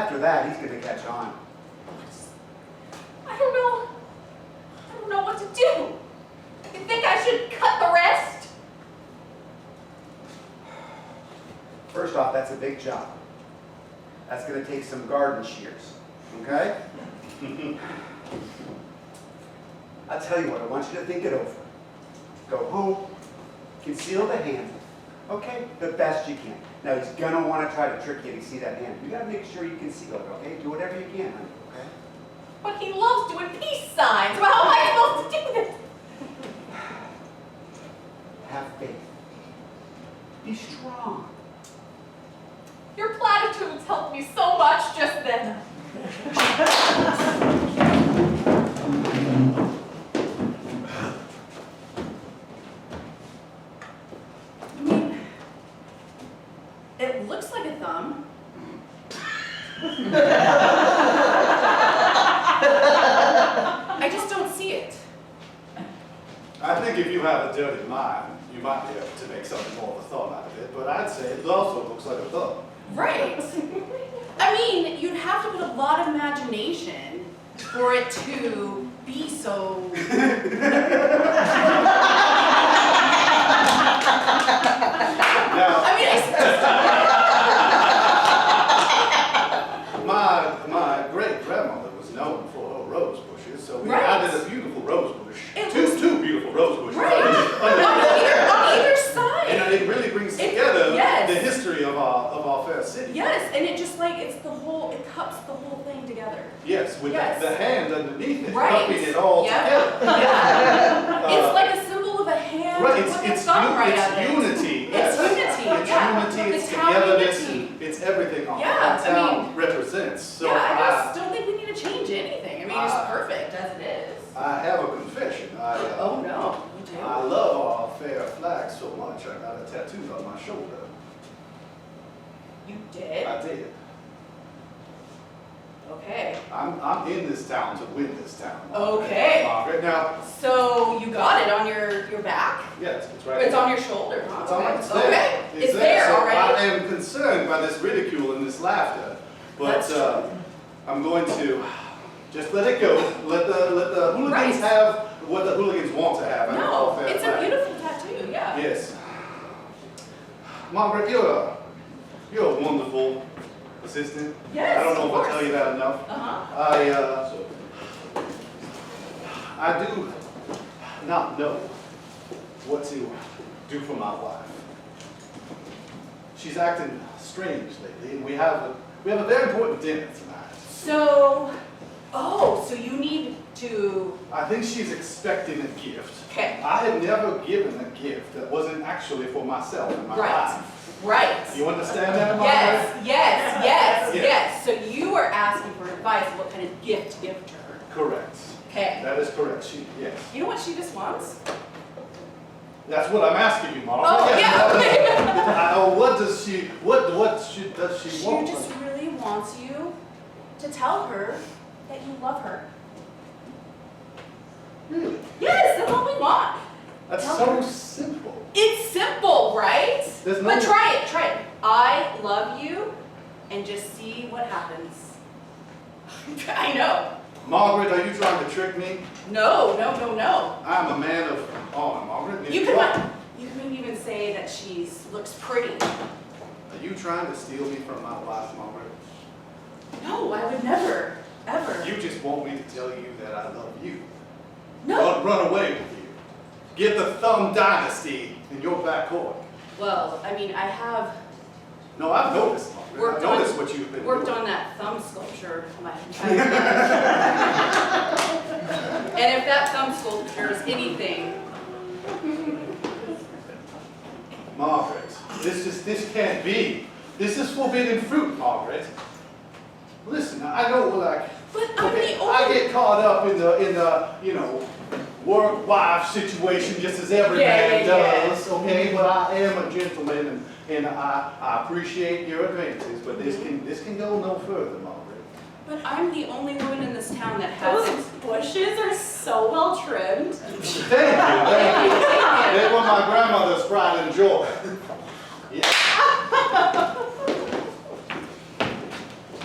that, he's gonna catch on. I don't know. I don't know what to do. You think I should cut the rest? First off, that's a big job. That's gonna take some garden shears, okay? I'll tell you what, I want you to think it over. Go home, conceal the hand, okay, the best you can. Now, he's gonna wanna try to trick you to see that hand. You gotta make sure you conceal it, okay? Do whatever you can, honey, okay? But he loves doing peace signs. Well, how am I supposed to do this? Have faith. Be strong. Your platitudes helped me so much just then. I mean, it looks like a thumb. I just don't see it. I think if you have a dirty mind, you might be able to make something more of a thumb out of it, but I'd say it also looks like a thumb. Right. I mean, you'd have to put a lot of imagination for it to be so. Now, I mean, I, my, my great grandmother was known for her rose bushes, so we Right. added a beautiful rose bush. It Two, looks- two beautiful rose bushes. right. On either, on either side. And uh, it really brings It- together yes. the history of our, of our fair city. Yes, and it just like it's the whole it cups the whole thing together. Yes, with the- Yes. the hand underneath it, Right. cupping it all Yeah. together. Yeah. Uh, it's like a symbol of a hand Right, with it's, a it's, thumb u- right up it's it. unity, It's yes. unity, It's yeah. unity, it's The town togetherness, unity. it's everything our Yeah, I town represents, so uh, yeah, I just I, don't think we need to change anything. I mean, Ah. it's perfect as it is. I have a confession, I, uh, oh no, you do. I love our fair flag so much, I got a tattoo on my shoulder. you did. I did. Okay. I'm, I'm in this town to win this town. Okay. Margaret, now, So you got it on your your back. yes, it's right. It's here. on your shoulder. huh? It's all right, it's there. Okay. It's there So I already. am concerned by this ridicule and this laughter, but That's- uh, I'm going to just let it go. Let the, let the hooligans Right. have what the hooligans want to have. and all No, fair it's a play. beautiful tattoo. Yeah. Yes. Margaret, you're a, you're a wonderful assistant. Yes, I don't know of if I course. tell you that enough. Uh huh. I, uh, I do not know what to do for my wife. She's acting strange lately, and we have a, we have a very important dinner tonight. So, oh, so you need to. I think she's expecting a gift. Okay. I had never given a gift that wasn't actually for myself in my Right. life. Right. You understand that, Margaret? Yes, yes, yes, Yeah. yes. So you are asking for advice, what kind of gift to give to her. Correct. Okay. That is correct. She, yes. You know what she just wants? That's what I'm asking you, Margaret. Oh, Yes, that- uh, what does she? What what she, does she, She want? just really wants you to tell her that you love her. really? Yes, that's all we want. That's Tell so her. simple. It's simple, right? There's no- But try it, try it. I love you and just see what happens. I know. Margaret, are you trying to trick me? No, no, no, no. I'm a man of honor, Margaret. If You could, are, you could even say that she's, looks pretty. are you trying to steal me from my wife, Margaret? No, I would never, ever. You just want me to tell you that I love you. no. Run, run away with you. Get the Thumb Dynasty in your back court. Well, I mean, I have No, I've noticed, Margaret. Worked I've on- noticed what you've been worked doing. on that thumb sculpture my entire life. and if that thumb sculpture is anything, Margaret, this is this can't be. This is forbidden fruit, Margaret. Listen, I know like but I'm okay, the I only. get caught up in the in the you know work wife situation just as every Yeah, man yeah, yeah. does, okay? But I am a gentleman and, and I, I appreciate your advances, but this can this can go no further, Margaret. But I'm the only woman in this town that has. Those bushes are so well trimmed. Thank you. Thank you. Thank you. They were my grandmother's pride and joy. Yeah.